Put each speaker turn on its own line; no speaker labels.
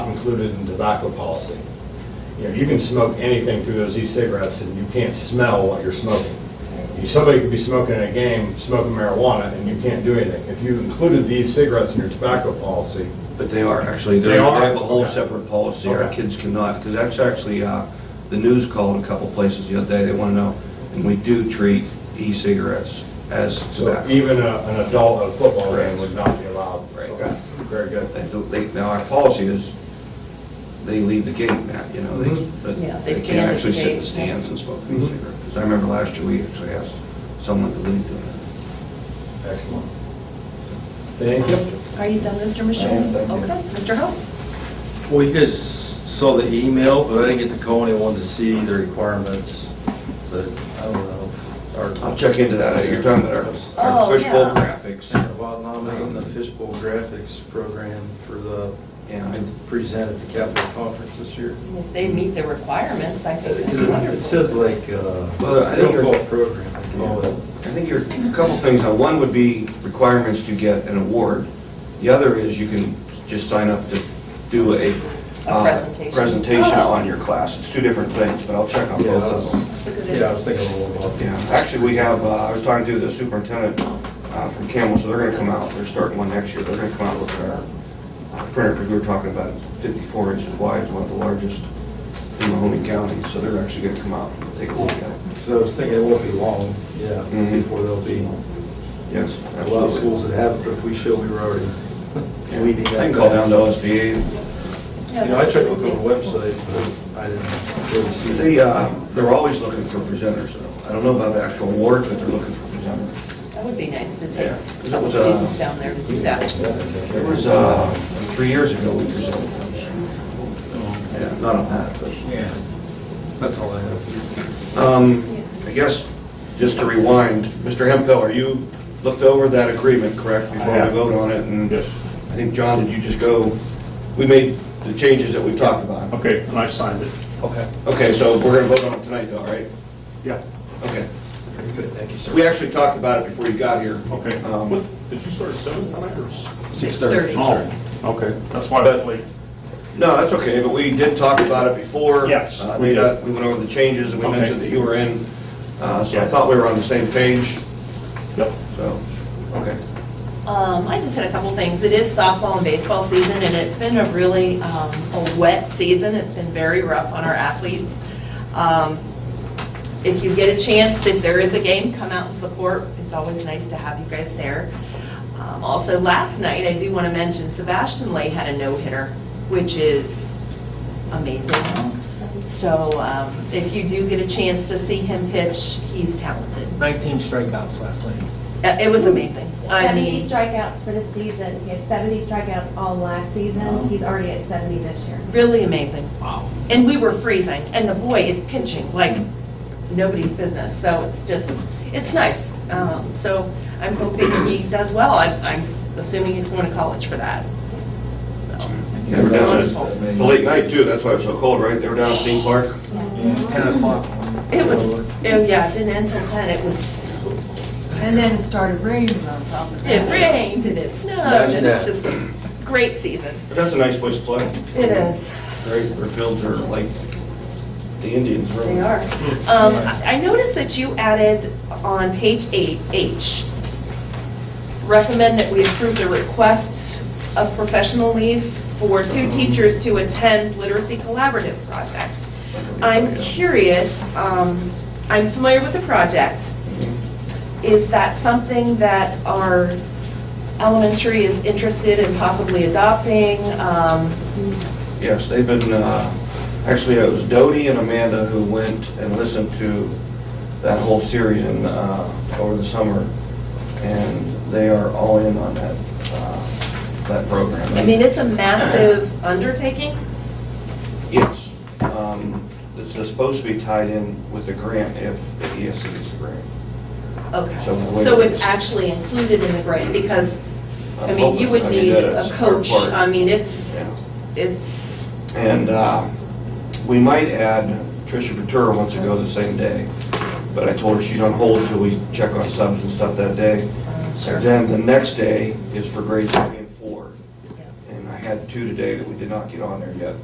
included in tobacco policy. You know, you can smoke anything through those e-cigarettes, and you can't smell what you're smoking. You- Somebody could be smoking at a game, smoking marijuana, and you can't do anything. If you included these cigarettes in your tobacco policy,
But they are, actually.
They are?
They have a whole
Okay.
separate policy, our
Okay.
kids cannot, because that's actually, uh, the news called a couple places the other day, they want to know, and we do treat e-cigarettes as
so e-
tobacco.
even a- an adult at a football game
Correct.
would not be allowed.
Right.
Okay, very good.
They do- they- Now, our policy is, they leave the gate, Matt, you know, they,
Mhm.
but
Yeah, they
they
stand
can't
at
actually
the
sit in the
gate.
stands and smoke
Mhm.
e-cigarettes. Because I remember last year, we actually asked someone to leave doing that.
Excellent. Thank you.
Are you done, Mr.
am,
Michelle?
thank you.
Okay, Mr. Hope?
Well, you guys saw the email, but I didn't get to call anyone to see the requirements, but I don't know. our-
I'll check into that, you're talking about our- our
Oh,
fishbowl
yeah.
graphics.
While nominating the fishbowl graphics program for the,
Yeah, I-
to present at the Capitol Conference this year.
If they meet the requirements, I think that's wonderful.
It says like, uh,
Well, I think-
no-fault program, they call it.
I think there are a couple things. Now, one would be requirements to get an award. The other is you can just sign up to do a uh,
presentation.
presentation
Oh.
on your class. It's two different things, but I'll check on
Yeah,
both
I
of them.
was- Yeah, I was thinking a little about
Yeah,
that.
actually, we have, uh, I was talking to the superintendent uh, from Camel, so they're going to come out, they're starting one next year, they're going to come out with our uh, printer, because we were talking about 54 inches wide, is one of the largest in Mahoney County, so they're actually going to come out and take a look at it.
Because I was thinking it won't be long, yeah,
Mhm.
before there'll be
Yes,
a lot of
absolutely.
schools that have it, but if we show we were already leading that.
I can call down to OSBA,
You know, I tried to look on the website, but I didn't really see.
They, uh, they're always looking for presenters, though. I don't know about the actual award, but they're looking for presenters.
That would be nice to take
Yeah.
a couple
uh,
students down there to do that.
It was, uh, three years ago we presented those. Yeah, not on that, but,
Yeah, that's all I have.
um, I guess, just to rewind, Mr. Hempeller, you looked over that agreement, correct? Before
I
we
have.
vote on it, and I think, John, did you just go, we made the changes that we talked about?
Okay, and I signed it.
Okay. Okay, so we're gonna vote on it tonight, though, right?
Yeah.
Okay.
Very good, thank you, sir.
We actually talked about it before you got here.
Okay.
Um,
What- Did you start at seven tonight or? s-
Six thirty.
Oh, okay. That's why I was late.
No, that's okay, but we did talk about it before.
Yes,
Uh,
we
We
did.
got- we went over the changes, and we
Okay.
mentioned that you were in, uh, so I
Yeah.
thought we were on the same page,
Yep.
so, okay.
Um, I just had a couple things. It is softball and baseball season, and it's been a really, um, a wet season. It's been very rough on our athletes. Um, If you get a chance, if there is a game, come out and support. It's always nice to have you guys there. Um, Also, last night, I do want to mention Sebastian Lay had a no-hitter, which is amazing. So um, if you do get a chance to see him pitch, he's talented.
19 strikeouts last night.
Uh, It was amazing. I
70
mean,
strikeouts for the season. He had 70 strikeouts all last season. He's already at 70 this year.
really amazing.
Wow.
And we were freezing, and the boy is pinching like nobody's business, so it's just, it's nice. Um, So I'm hoping he does well. I- I'm assuming he's going to college for that. So,
Yeah, we're down
wonderful.
at the late night, too, that's why it was so cold, right? They were down at Theme Park.
10 o'clock.
It was, oh, yeah, it didn't end till 10, it was,
And then it started raining on top of
it
that.
rained, and it snowed, and it's just a great season.
But that's a nice place to play.
It is.
Right, their fields are like the Indians, really.
They are. Um, I I noticed that you added on page eight, H, recommend that we approve the request of professional leave for two teachers to attend literacy collaborative project. I'm curious, um, I'm familiar with the project. Is that something that our elementary is interested in possibly adopting? Um,
Yes, they've been, uh, actually, it was Doty and Amanda who went and listened to that whole series in, uh, over the summer, and they are all in on that, uh, that program.
I mean, it's a massive undertaking.
Yes. Um, It's supposed to be tied in with the grant if the E ESC is a grant.
Okay,
So the way
so
it
it's
is-
actually included in the grant, because, I
I'm
mean, you
hoping-
would
I mean,
need
that
a
is our
coach,
part.
I mean, it's,
Yeah.
it's,
And uh, we might add Tricia Ventura wants to go the same day, but I told her she's on hold till we check on subs and stuff that day.
uh,
So
sure.
Then the next day is for grades three and four.
Yeah.
And I had two today that we did not get on there yet.